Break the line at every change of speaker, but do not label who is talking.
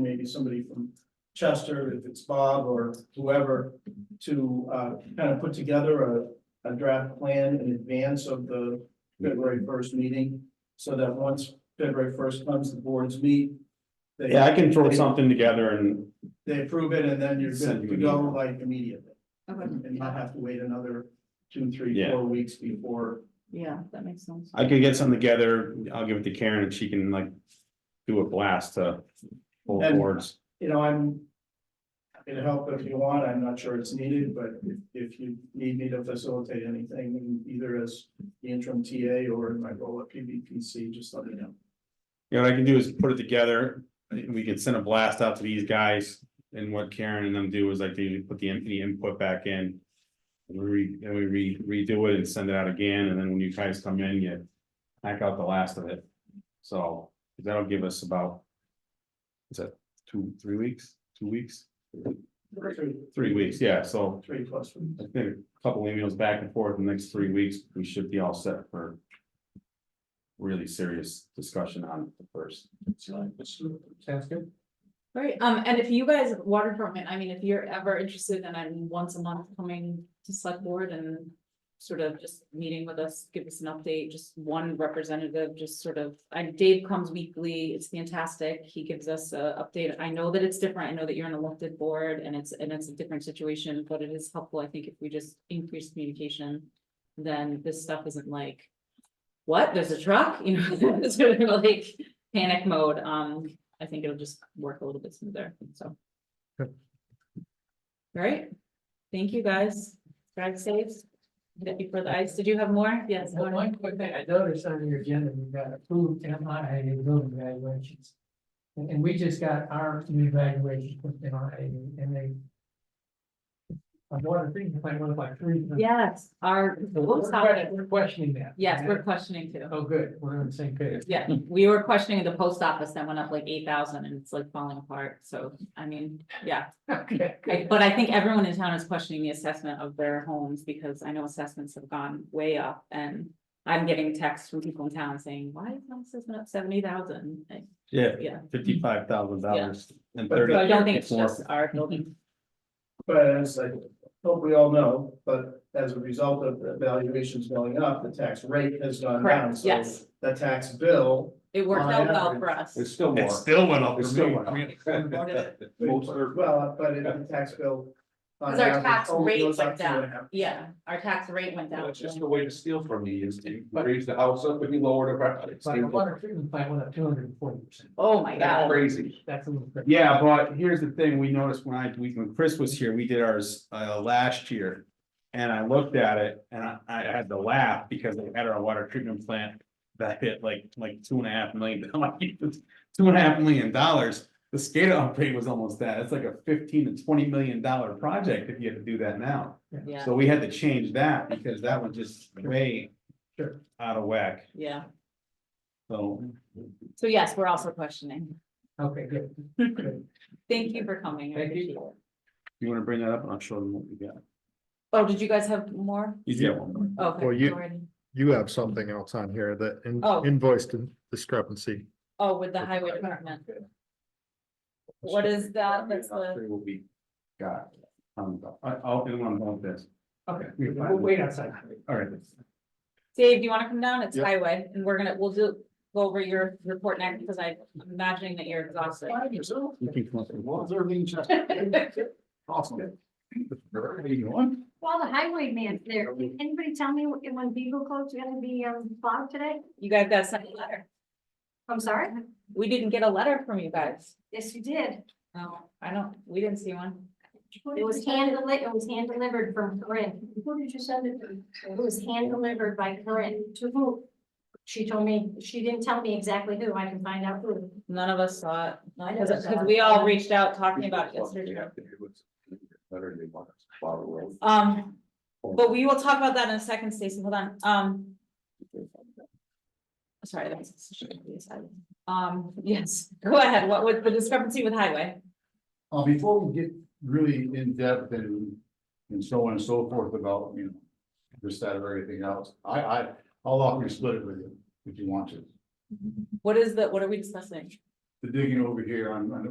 maybe somebody from Chester, if it's Bob or whoever, to uh kind of put together a a draft plan in advance of the February first meeting. So that once February first comes, the boards meet. they-
Yeah, I can throw something together and
They approve it and then you're
Send
good
you
to
an
go
email.
like immediately
Okay,
and not have to wait another two, three,
Yeah.
four weeks before.
yeah, that makes sense.
I could get something together. I'll give it to Karen and she can like do a blast to both
And-
boards.
You know, I'm happy to help if you want. I'm not sure it's needed, but if if you need me to facilitate anything, either as the interim TA or in my role at PBPC, just let me know.
You know, what I can do is put it together. We can send a blast out to these guys and what Karen and them do is like they put the in- the input back in. And we re- and we re- redo it and send it out again. And then when you guys come in, you hack out the last of it. So that'll give us about. Is that two, three weeks, two weeks,
Three,
three weeks? Yeah, so
three plus weeks.
I think a couple emails back and forth in the next three weeks, we should be all set for. Really serious discussion on the first.
Sounds good.
Right, um, and if you guys, water department, I mean, if you're ever interested in, I mean, once a month coming to select board and. Sort of just meeting with us, give us an update, just one representative, just sort of, I, Dave comes weekly, it's fantastic, he gives us a update. I know that it's different, I know that you're an elected board and it's, and it's a different situation, but it is helpful, I think, if we just increase communication. Then this stuff isn't like, what, there's a truck, you know, it's sort of like panic mode, um, I think it'll just work a little bit smoother, so. Alright, thank you guys, drive safe. Thank you for the ice, did you have more? Yes.
Well, one quick thing, I noticed on your agenda, we got approved MIA building valuations. And, and we just got our new valuation from MIA and they. I'm wondering, if I want to buy three.
Yes, our,
So We're que- we're questioning that.
yes, we're questioning too.
Oh, good, we're on the same page.
Yeah, we were questioning the post office that went up like eight thousand and it's like falling apart, so, I mean, yeah.
Okay.
I- But I think everyone in town is questioning the assessment of their homes, because I know assessments have gone way up, and I'm getting texts from people in town saying, why is my assessment up seventy thousand?
Yeah,
Yeah,
fifty-five thousand dollars and
so I don't think it's
Four.
just our building,
But as I hope we all know, but as a result of the valuations going up, the tax rate has gone down.
correct,
So
yes,
The tax bill.
it worked out well for us.
It's still
It
more.
still went up
It's
for
still
me.
went
I
up.
mean,
Most are-
Well, but in the tax bill. on
Because our
average,
tax
only
rate
goes up
went down.
2.5%.
Yeah, our tax rate went down.
That's just a way to steal from me is you raise the house up and you lower the. rent. It's
But the water
still-
treatment plant went up two hundred and forty percent.
Oh, my
That's
God,
crazy.
That's a little. crazy.
Yeah, but here's the thing, we noticed when I, we, when Chris was here, we did ours, uh, last year. And I looked at it and I, I had to laugh because they had our water treatment plant that hit like, like two and a half million, like, two and a half million dollars. The SCADA upgrade was almost that, it's like a fifteen to twenty million dollar project if you had to do that now.
yeah,
So we had to change that because that one just way out of whack,
yeah,
so.
so yes, we're also questioning,
Okay, good. Good.
thank you for coming. I
Thank you.
appreciate it.
You wanna bring that up and I'll show them what we got.
Oh, did you guys have more?
You got one more.
Okay.
Well, you-
already.
You have something else on here that in-
Oh.
invoice di- discrepancy.
Oh, with the highway department. What is that? That's the,
Three will be got. Um, I, I'll, do one about this.
Okay,
You're fine.
we'll wait outside.
All right.
Dave, do you wanna come down? It's
Yep.
highway, and we're gonna, we'll do, go over your report next, because I'm imagining that you're exhausted.
You can come up with one.
Awesome. Where are you going?
Well, the highway man's there. Can anybody tell me when when Beagle Coat's gonna be um plowed today?
You guys got sent a letter.
I'm sorry?
We didn't get a letter from you guys.
Yes, you did.
No, I don't, we didn't see one.
It was hand deli, it was hand delivered from Corinne. Who did you send it to? It was hand delivered by Corinne to who? She told me, she didn't tell me exactly who. I can find out who.
None of us saw it,
I
because, because we all reached out talking about it
They
yesterday.
have to do is- Better they want us to plow the road.
Um, but we will talk about that in a second, Stacy, hold on, um. Sorry, that's. shouldn't be a side. Um, yes, go ahead, what was the discrepancy with highway?
Uh, before we get really in depth and, and so on and so forth about, you know, this, that, or everything else, I, I, I'll offer to split it with you if you want to.
What is the, what are we discussing?
The digging over here on, on the